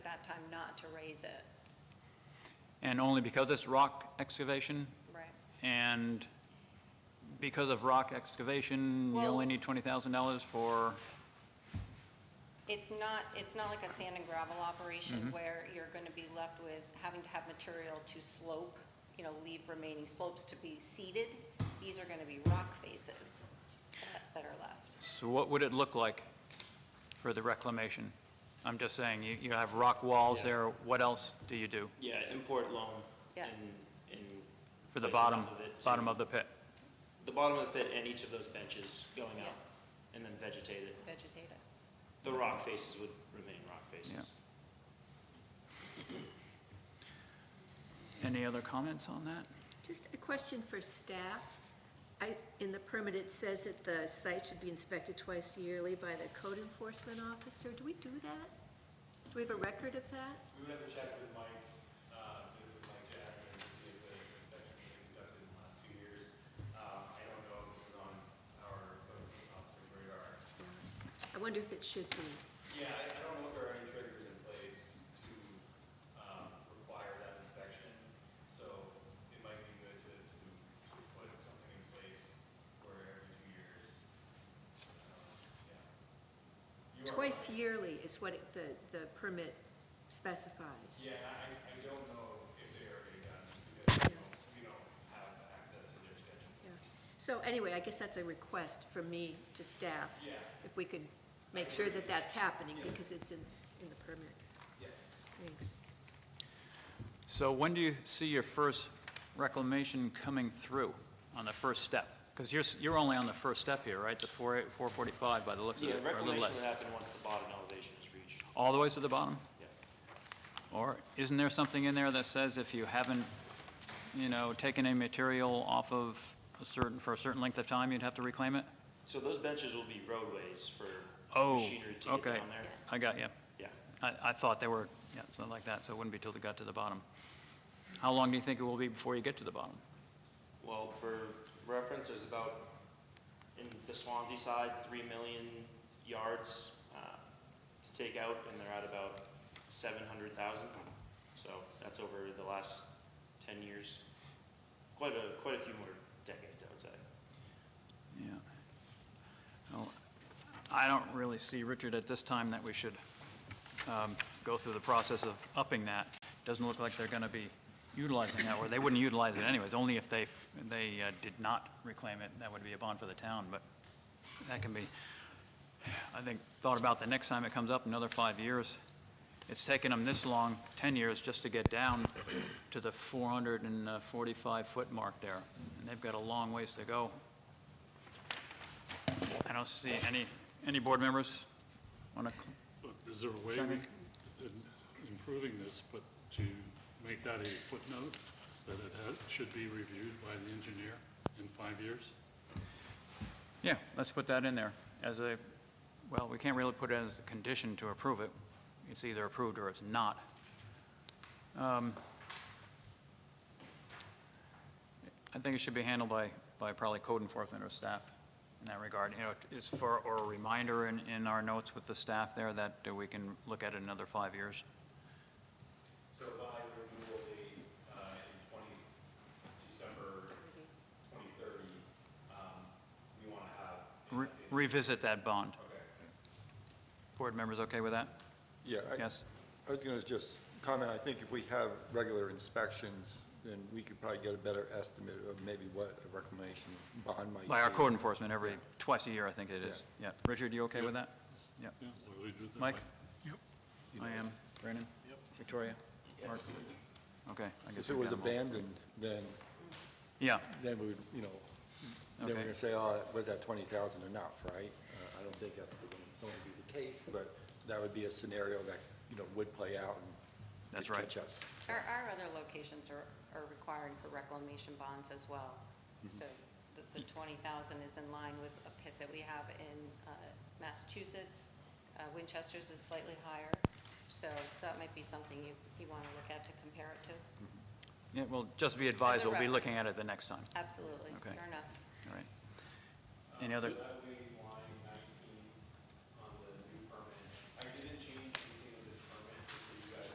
that time not to raise it, And only because it's rock excavation, right? and because of rock excavation, you Well- only need $20,000 for, It's not, it's not like a sand and gravel operation where you're going to be left with having to have material to slope, you know, leave remaining slopes to be seeded. These are going to be rock faces that- that are left. so what would it look like for the reclamation? I'm just saying, you, you have rock walls Yeah. there, what else do you do Yeah, import loam Yeah. and, and. for the place bottom, enough it to- bottom of the pit? The bottom of the pit and each of those benches going Yeah. out and then vegetate it. Vegetate it. The rock faces would remain rock faces. Any other comments on that? Just a question for staff. I, in the permit, it says that the site should be inspected twice yearly by the code enforcement officer. Do we do that? Do we have a record of that? We would have to check with Mike, uh, with Mike Jackson, to see if the inspection was conducted in the last two years. Um, I don't know if this is on our code enforcement officer's radar. I wonder if it should be. Yeah, I, I don't know if there are any triggers in place to, um, require that inspection, so it might be good to, to, to put something in place where every two years, um, yeah. You are Twice yearly is what it- the, the permit specifies. Yeah, I, I don't know if they already done, because we don't, we don't have access to their Yeah. schedule. So anyway, I guess that's a request from me to staff. Yeah. If we could make sure that that's happening because it's in, in the permit. Yeah. Thanks. So when do you see your first reclamation coming through on the first step? Because you're, s- you're only on the first step here, right? The 4, 445 by the looks of it, Yeah, or a little reclamation less. would happen once the bottom elevation is reached. All the way to the bottom? Yeah. Or isn't there something in there that says if you haven't, you know, taken any material off of a certain, for a certain length of time, you'd have to reclaim it? So those benches will be roadways for Oh, machinery to get okay. down there. I got you. Yeah. I, I thought they were, yeah, something like that, so it wouldn't be till they got to the bottom. How long do you think it will be before you get to the bottom? Well, for reference, there's about, in the Swansea side, three million yards, uh, to take out, and they're at about seven hundred thousand. So that's over the last ten years, quite a, quite a few more decades, I would say. Yeah. Well, I don't really see, Richard, at this time that we should um, go through the process of upping that. Doesn't look like they're going to be utilizing that, or they wouldn't utilize it anyways, only if they, f- they uh, did not reclaim it, that would be a bond for the town, but that can be, I think, thought about the next time it comes up, another five years. It's taken them this long, 10 years, just to get down to the 445-foot uh, mark there, and they've got a long ways to go. I don't see any, any board members want to, But Is there a way we Chairman? can, in improving this, but to make that a footnote, that it ha should be reviewed by the engineer in five years? yeah, let's put that in there as a, well, we can't really put it as a condition to approve it. It's either approved or it's not. Um, I think it should be handled by, by probably code enforcement or staff in that regard. You know, it's for, or a reminder in, in our notes with the staff there that uh, we can look at it another five years. So by the renewal date, uh, in twenty, December twenty thirty, um, we want to have. an Re- updated- Revisit that bond. Okay. Board members okay with that? Yeah, I- Yes? I was going to just comment, I think if we have regular inspections, then we could probably get a better estimate of maybe what a reclamation bond might be. By our code enforcement, every, Yeah. twice a year, I think it is. Yeah. Richard, you okay with that? Yeah. Yeah, so we do that Mike? by- I am. Brandon? Yep. Victoria? Mark? Okay, I guess If it we've was got 'em all. abandoned, then, Yeah, then we would, you know, then we're Okay. going to say, oh, was that 20,000 enough, right? Uh, I don't think that's the- going to be the case, but that would be a scenario that, you know, would play out and. That's could right. Catch us. Our, our other locations are, are requiring for reclamation bonds as well. So the, the twenty thousand is in line with a pit that we have in uh, Massachusetts. Uh, Winchester's is slightly higher, so that might be something you, you want to look at to compare it to. yeah, well, just be advised, As a we'll be looking at reference. it the next time. Absolutely, Okay. fair enough. All right. Any other, That way,